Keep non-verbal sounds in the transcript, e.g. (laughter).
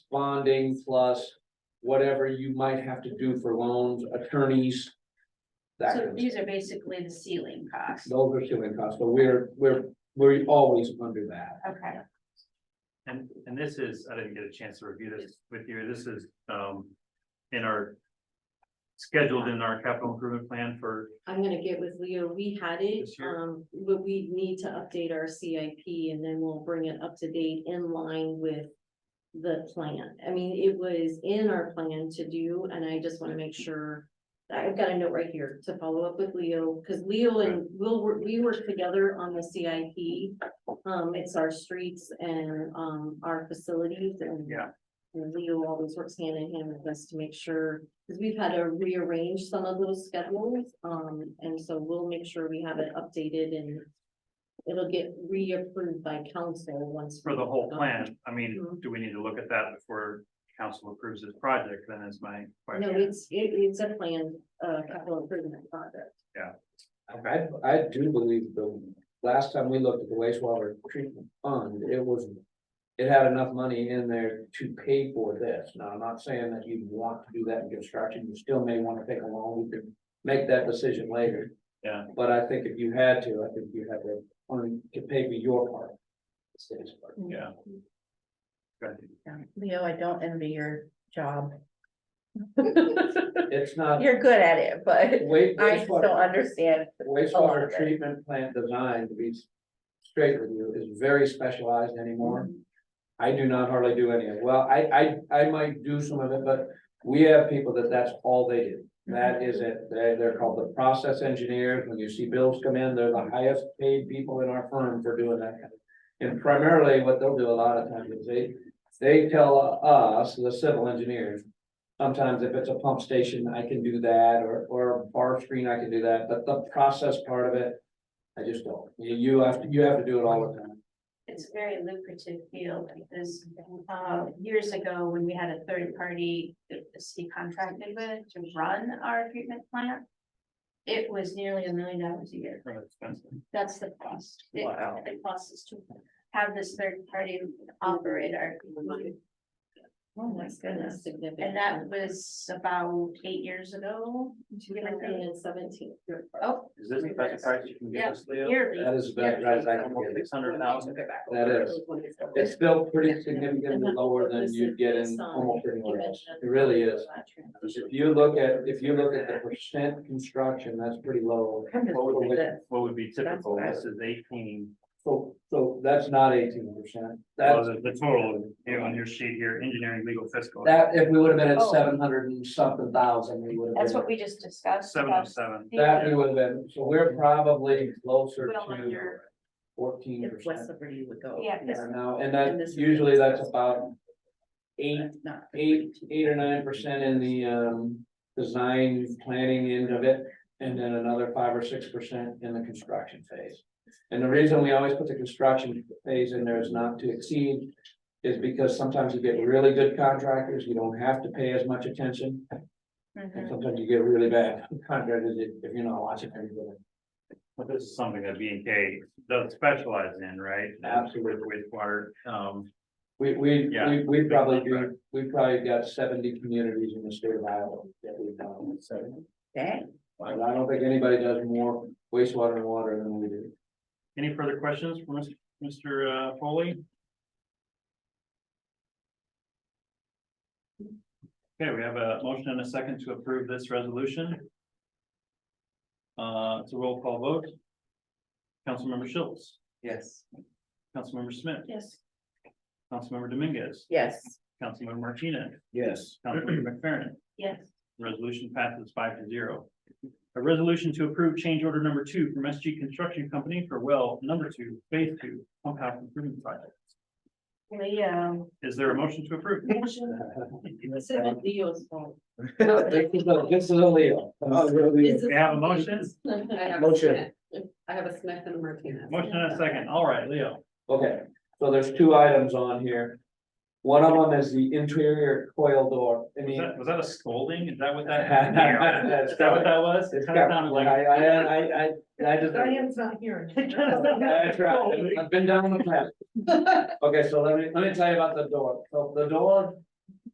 bonding plus whatever you might have to do for loans, attorneys. That kind So of stuff. these are basically the ceiling costs, Those are ceiling costs, but we're, we're, we're always under that. okay, And, and this is, I didn't get a chance to review this with you, this is, um, in our. Scheduled in our capital improvement plan for, I'm gonna get with Leo, we had it, This year? um, but we need to update our CIP and then we'll bring it up to date in line with. The plan, I mean, it was in our plan to do, and I just wanna make sure. I've got a note right here to follow up with Leo, cause Leo and Will, were- we work together on the CIP. Um, it's our streets and, um, our facilities and. Yeah. And Leo always works hand in hand with us to make sure because we've had to rearrange some of those schedules, um, and so we'll make sure we have it updated and. It'll get reapproved by council once. for the whole we- plan, I mean, Mhm. do we need to look at that before council approves this project, then is my No, question. it's, it, it's a planned, uh, capital improvement project. I, I do believe the last time we looked at the wastewater treatment fund, it was. It had enough money in there to pay for this. Now, I'm not saying that you want to do that in construction, you still may want to take a loan, you can make that decision later. Yeah. But I think if you had to, I think you have the, on, to pay for your part. the city's part. Yeah. Good. Leo, I don't envy your job. It's not, You're good at it, but wait, I just don't wastewater, understand. lot of wastewater it. treatment plant design, to be straight with you, is very specialized anymore. I do not hardly do any of it. Well, I, I, I might do some of it, but we have people that that's all they do. That is it. They're, they're called the process engineers. When you see bills come in, they're the highest paid people in our firm for doing that. kind of And primarily what they'll do a lot of times is they, they tell us, the civil engineers, sometimes if it's a pump station, I can do that, or, or a bar screen, I can do that, but the process part of it, I just don't. You, you have, to- you have to do it all the time. it's a very lucrative field, because, uh, years ago, when we had a third party that the city contracted with to run our treatment plant. It was nearly a million dollars a year, Really expensive. that's the cost. It- Wow. The cost is to have this third party operate our, Oh, my goodness, significant. and that was about eight years ago. Two thousand and seventeen. Oh, Is this the best price you can give us, Leo? yearly. That is about as I can get it. Six hundred thousand, That is. It's still pretty significantly lower than you'd get in almost anywhere else. It really is. If you look at, if you look at the percent construction, that's pretty low. I'm just Total looking with- at what would be typical, That's this is eighteen, So, so that's not eighteen percent. well, That's, the the total, you know, on your sheet here, engineering, legal, fiscal. that, if we would have been at Oh. seven hundred and something thousand, we would have That's been. what we just discussed. Seven oh about seven, That we would have been, so we're probably closer Well, to under- fourteen If West percent Liberty would go. Yeah, 'cause- now, and And that, this is- usually that's about eight That's not- eight, eight or nine percent in the um, design, planning end of it. And then another five or six percent in the construction phase. And the reason we always put the construction phase in there is not to exceed. Is because sometimes you get really good contractors, you don't have to pay as much attention, and Mhm. sometimes you get really bad (laughs) contractors if if you're not watching everybody. but this is something that B and K does specialize in, right? Absolutely. With wastewater, um, We, we, Yeah. we, we probably do, we probably got seventy communities in the state of Iowa that we've done. Dang. I don't think anybody does more wastewater and water than we do. Any further questions for Mr. Mr. uh, Foley? Okay, we have a motion and a second to approve this resolution. Uh, it's a roll call vote. Councilmember Schultz, Yes, Councilmember Smith, Yes. Councilmember Dominguez, Yes, Councilmember Martinez, Yes. Councilmember McFerrin. Yes. Resolution passes five to zero. A resolution to approve change order number two from SG Construction Company for well number two, phase two, pump house improvement project. We, um, Is there a motion to approve? This is Leo's fault. This is a Leo. We have a (laughs) motion, Motion. I have a Smith and a Martinez. motion and a second. All right, Leo. Okay, so there's two items on here. One of them is the interior coil door, I Was mean. that, was that a scolding? Is that what that? (laughs) Is that what that was? It It's kind of sounded I, like. I, I, I, I just. Diane's not here. (laughs) (laughs) That's right, I've been down the path. Okay, so let me, let me tell you about the door, so the door